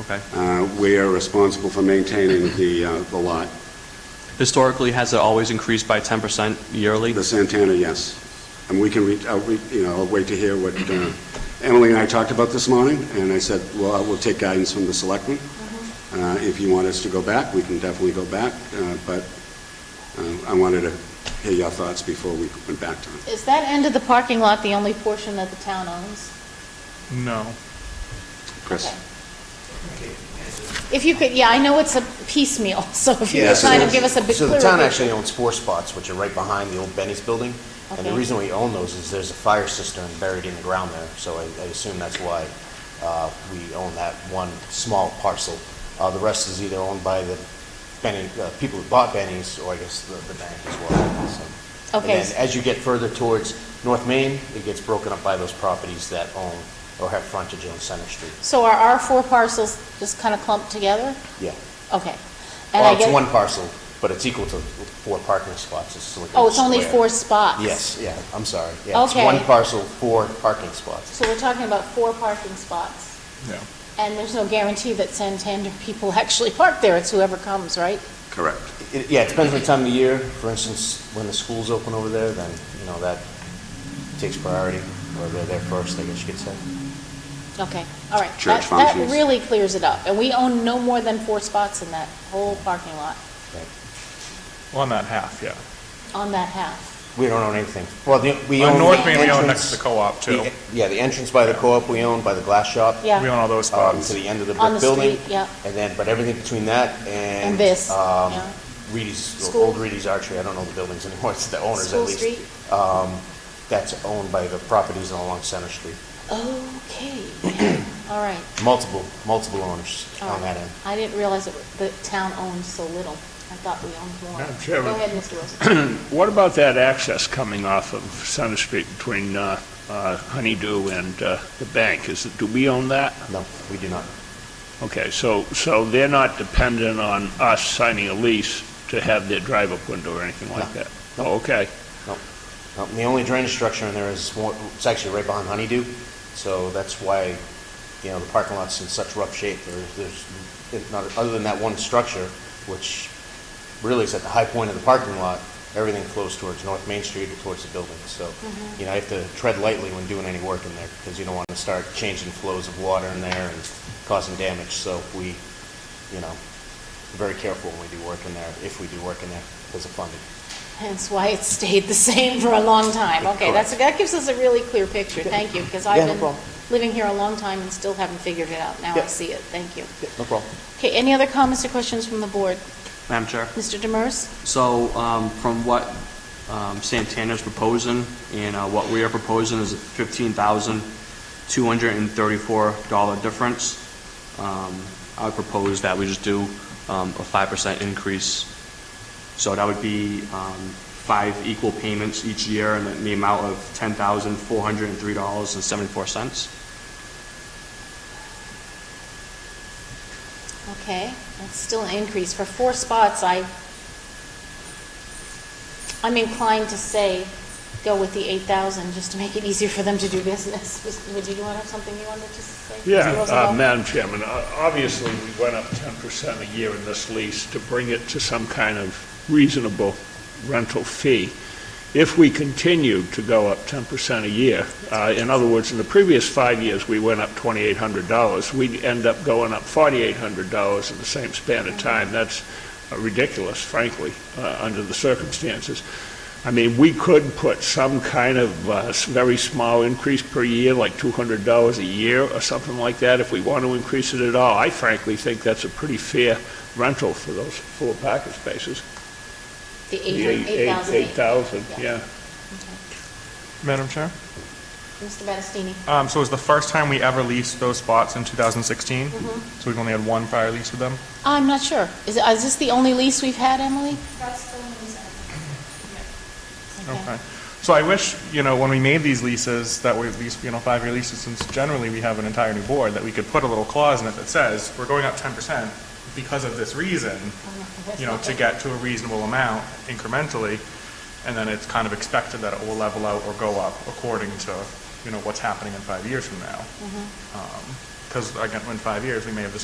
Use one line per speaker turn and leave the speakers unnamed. Okay.
Uh, We are responsible for maintaining the, uh, the lot.
Historically, has it always increased by 10% yearly?
The Santana, yes. And we can reach, I'll, re- you know, I'll wait to hear what uh, Emily and I talked about this morning, and I said, well, we'll take guidance from the selectmen. Uh, If you want us to go back, we can definitely go back, uh, but um, I wanted to hear your thoughts before we went back to it.
Is that end of the parking lot the only portion that the town owns?
No.
Chris?
If you could, yeah, I know it's a piecemeal, so if you
Yeah,
could
so
kind of
there's-
give us a bit
So
clearer.
the town
picture.
actually owns four spots, which are right behind the old Benny's building. And the
Okay.
reason we own those is there's a fire cistern buried in the ground there, so I, I assume that's why, uh, we own that one small parcel. Uh, the rest is either owned by the Benny, uh, people who bought Benny's, or I guess the, the bank as well, so.
Okay.
And then as you get further towards North Main, it gets broken up by those properties that own or have frontage on Center Street.
So are our four parcels just kind of clumped together?
Yeah.
Okay. And I
Well, it's
get-
one parcel, but it's equal to four parking spots. It's like a
Oh, it's only
square.
four spots?
Yes, yeah, I'm sorry. Yeah, it's
Okay.
one parcel, four parking spots.
So we're talking about four parking spots,
Yeah.
and there's no guarantee that Santander people actually park there, it's whoever comes, right?
Correct.
It- Yeah, it depends on the time of year. For instance, when the school's open over there, then, you know, that takes priority, or they're there first, I guess you could say.
Okay, all right.
Church
That- That
functions.
really clears it up, and we own no more than four spots in that whole parking lot,
On that half, yeah.
on that half.
We don't own anything. Well, the, we
On
own.
North
the
Main, we own
entrance-
next to the co-op, too.
the- Yeah, the entrance by the co-op, we own by the glass shop.
Yeah.
We own all those
um,
spots.
to the end of the
On the
brick building.
street, yeah.
And then, but everything between that and.
And this,
um,
yeah.
Reedy's,
School.
old Reedy's Archery, I don't know the buildings anymore, it's the owners at
School
least.
Street?
Um, that's owned by the properties along Center Street.
Okay, all right.
Multiple, multiple owners
All
on
right.
that end.
I didn't realize that the town owned so little. I thought we owned more.
Madam Chairman.
Go ahead, Mr. Wilson.
What about that access coming off of Center Street between uh, uh, Honeydew and uh, the bank? Is, it- do we own that?
No, we do not.
Okay, so, so they're not dependent on us signing a lease to have their drive-up window or anything like
No.
that? Oh, okay.
No, Um, The only drainage structure in there is, more- it's actually right behind Honeydew, so that's why, you know, the parking lot's in such rough shape. There- There's, not, other than that one structure, which really is at the high point of the parking lot, everything flows towards North Main Street or towards the building. So, you know, I have to tread lightly when doing any work in there, because you don't want to start changing flows of water in there and causing damage. So we, you know, very careful when we do work in there, if we do work in there, because of funding.
Hence why it stayed the same for a long time. Okay, that's, that gives us a really clear picture. Thank you, because
Yeah,
I've
no
been
problem.
living here a long time and still haven't figured it out. Now I
Yeah.
see it. Thank you.
No problem.
Okay, any other comments or questions from the board?
Madam Chair?
Mr. Demers?
So um, from what um, Santana's proposing and uh, what we are proposing is a $15,234 difference. Um, I would propose that we just do um, a 5% increase. So that would be um, five equal payments each year and the amount of $10,403.74.
Okay, that's still an increase. For four spots, I, I'm inclined to say, go with the 8,000, just to make it easier for them to do business. Was- Would you want to have something you wanted to say? Mr.
Yeah, uh,
Rosenbaum?
Madam Chairman, uh, obviously, we went up 10% a year in this lease to bring it to some kind of reasonable rental fee. If we continued to go up 10% a year, uh, in other words, in the previous five years, we went up $2,800, we'd end up going up $4,800 in the same span of time. That's uh, ridiculous, frankly, uh, under the circumstances. I mean, we could put some kind of uh, s- very small increase per year, like $200 a year or something like that, if we want to increase it at all. I frankly think that's a pretty fair rental for those four parking spaces.
The
The eight- eight-
8,000.
8,000,
Yeah.
yeah.
Madam Chair?
Mr. Battistini?
Um, so it was the first time we ever leased those spots in 2016? So we've only had one prior lease with them?
I'm not sure. Is, uh, is this the only lease we've had, Emily?
That's the one we sent. Yeah.
Okay. So I wish, you know, when we made these leases, that we at least, you know, five-year leases, since generally we have an entire new board, that we could put a little clause in it that says, we're going up 10% because of this reason, you know, to get to a reasonable amount incrementally, and then it's kind of expected that it will level out or go up according to, you know, what's happening Um, in five years from now. Because again, in five years, we may have the same